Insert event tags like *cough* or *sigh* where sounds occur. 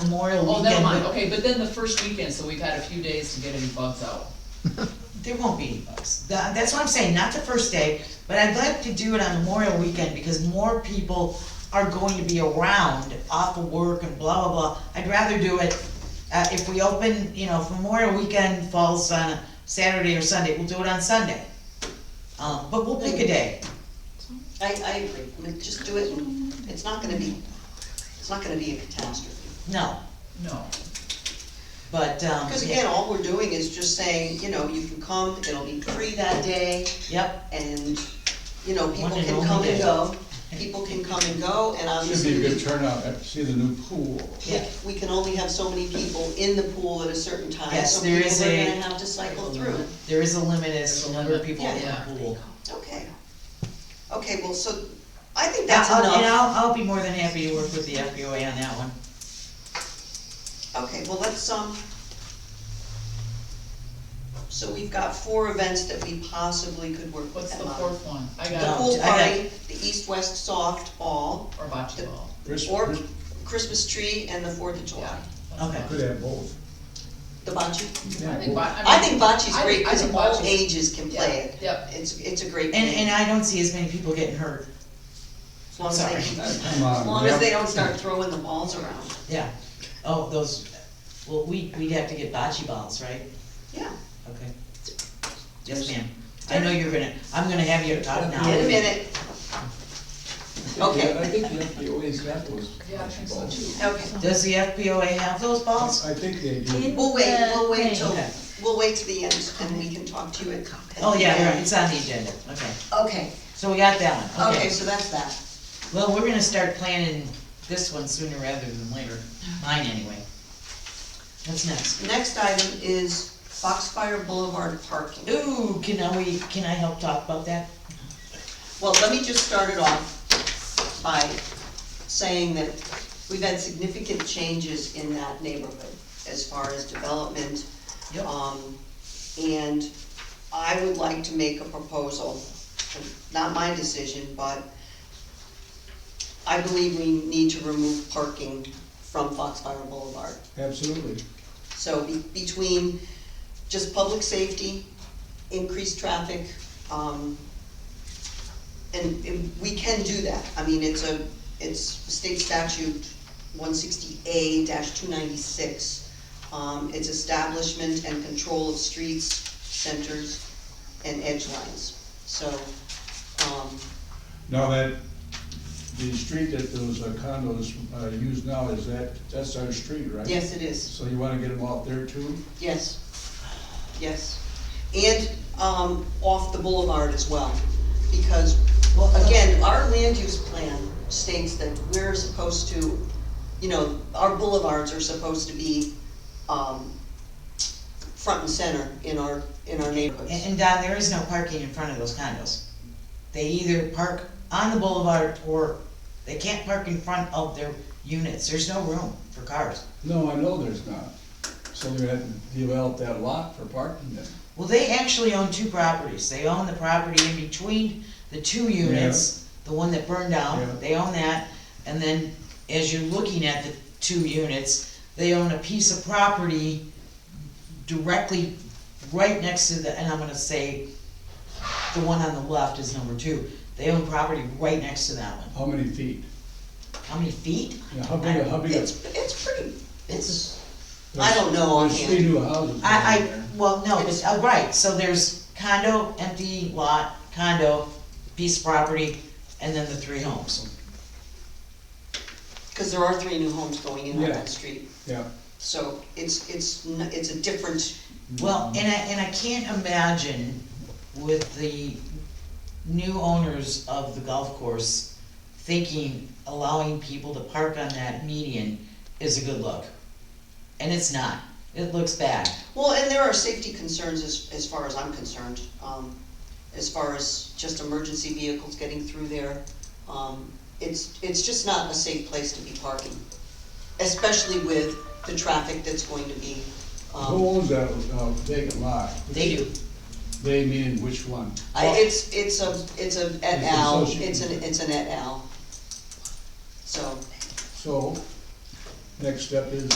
Memorial Oh, never Weekend, mind, but okay, but then the first weekend, so we've had a few days to get any bugs out. there won't be any bugs. Tha- That's what I'm saying, not the first day, but I'd like to do it on Memorial Weekend because more people are going to be around off of work and blah, blah, blah. I'd rather do it, uh, if we open, you know, if Memorial Weekend falls on a Saturday or Sunday, we'll do it on Sunday. Um, but we'll pick a day. I, I agree, I mean, just do it, and it's not gonna be, it's not gonna be a catastrophe. No, No, but, um, Because yeah. again, all we're doing is just saying, you know, you can come, it'll be free that day, yep, and, you know, people One and can only come and day. go. People can come and go, and Should be a good obviously, turnout, I see the new pool. yeah. we can only have so many people in the pool at a certain time. Yes, there is So people a- are gonna have to cycle through. There is a limit as There's to a the number of limit, people in the yeah. pool. Okay. Okay, well, so, I think that's I'll- And enough. I'll, I'll be more than happy to work with the FBOA on that one. Okay, well, let's, um, so we've got four events that we possibly could work with what's the them on. fourth one? I The No, got, pool I got- party, the east-west softball, or bocce ball. Chris- or Chris Christmas tree, and the Fourth of July. That's Okay. about Could it. have both. The bocce. I think bo- I mean, think bocce's I great, think- I because think all bocce's- ages can play it. Yep. It's, it's a great And, and game, I don't see as many people getting hurt, as long as *laughs* they, sorry. Um, can- Come on. as long as man. they don't start throwing the balls around, yeah. Oh, those, well, we, we'd have to get bocce balls, right? yeah. Okay. Yes, ma'am. I know you're gonna, I'm gonna have you uh, talk now. In a minute, okay. I think the FBOA example was. Yeah, I think so too. okay. Does the FBOA have those balls? I think they do. We'll wait, we'll wait till, Okay. we'll wait to the end, and we can talk to you at. at Oh, the yeah, end. right, it's on the agenda, okay. Okay, So we got that one, okay, okay. so that's that. Well, we're gonna start planning this one sooner rather than later, mine anyway. What's next? Next item is Foxfire Boulevard parking. Ooh, can I, we, can I help talk about that? Well, let me just start it off by saying that we've had significant changes in that neighborhood as far as development. Yep. Um, and I would like to make a proposal, not my decision, but I believe we need to remove parking from Foxfire Boulevard. Absolutely. So be- between just public safety, increased traffic, um, and, and we can do that. I mean, it's a, it's state statute one sixty A two ninety-six. Um, it's establishment and control of streets, centers, and edge lines. So, um, Now that, the street that those uh, condos uh, use now, is that, that's our street, right? yes, it is. So you wanna get them out there too? Yes, yes. And, um, off the boulevard as well, because, well, again, our land use plan states that we're supposed to, you know, our boulevards are supposed to be, um, front and center in our, in our And, neighborhoods. and Don, there is no parking in front of those condos. They either park on the boulevard or they can't park in front of their units. There's no room for cars. No, I know there's not. So they're gonna have to develop that lot for parking then. Well, they actually own two properties. They own the property in between the two units, the one that burned Yeah. down, they own that. And then as you're looking at the two units, they own a piece of property directly right next to the, and I'm gonna say, the one on the left is number two. They own property right next to that one. How many feet? How many feet? Yeah, How big, a- how big? a- It's, it's pretty, It's, I don't know There's three offhand. new houses down I, there. I, well, no, it's, oh, right, so there's condo, empty lot, condo, piece of property, and then the three homes. because there are three new homes going in on Yeah. that street. Yeah. So it's, it's, n- it's a different, Well, and I, and I can't imagine with the new owners of the golf course thinking allowing people to park on that median is a good look. And it's not, it looks bad. Well, and there are safety concerns as, as far as I'm concerned, um, as far as just emergency vehicles getting through there. Um, it's, it's just not a safe place to be parking, especially with the traffic that's going to be, Who um, owns that uh, vacant lot? They do. They mean which one? I, it's, it's a, it's a et It's al, associated. it's an, it's an et al. So. So, next step is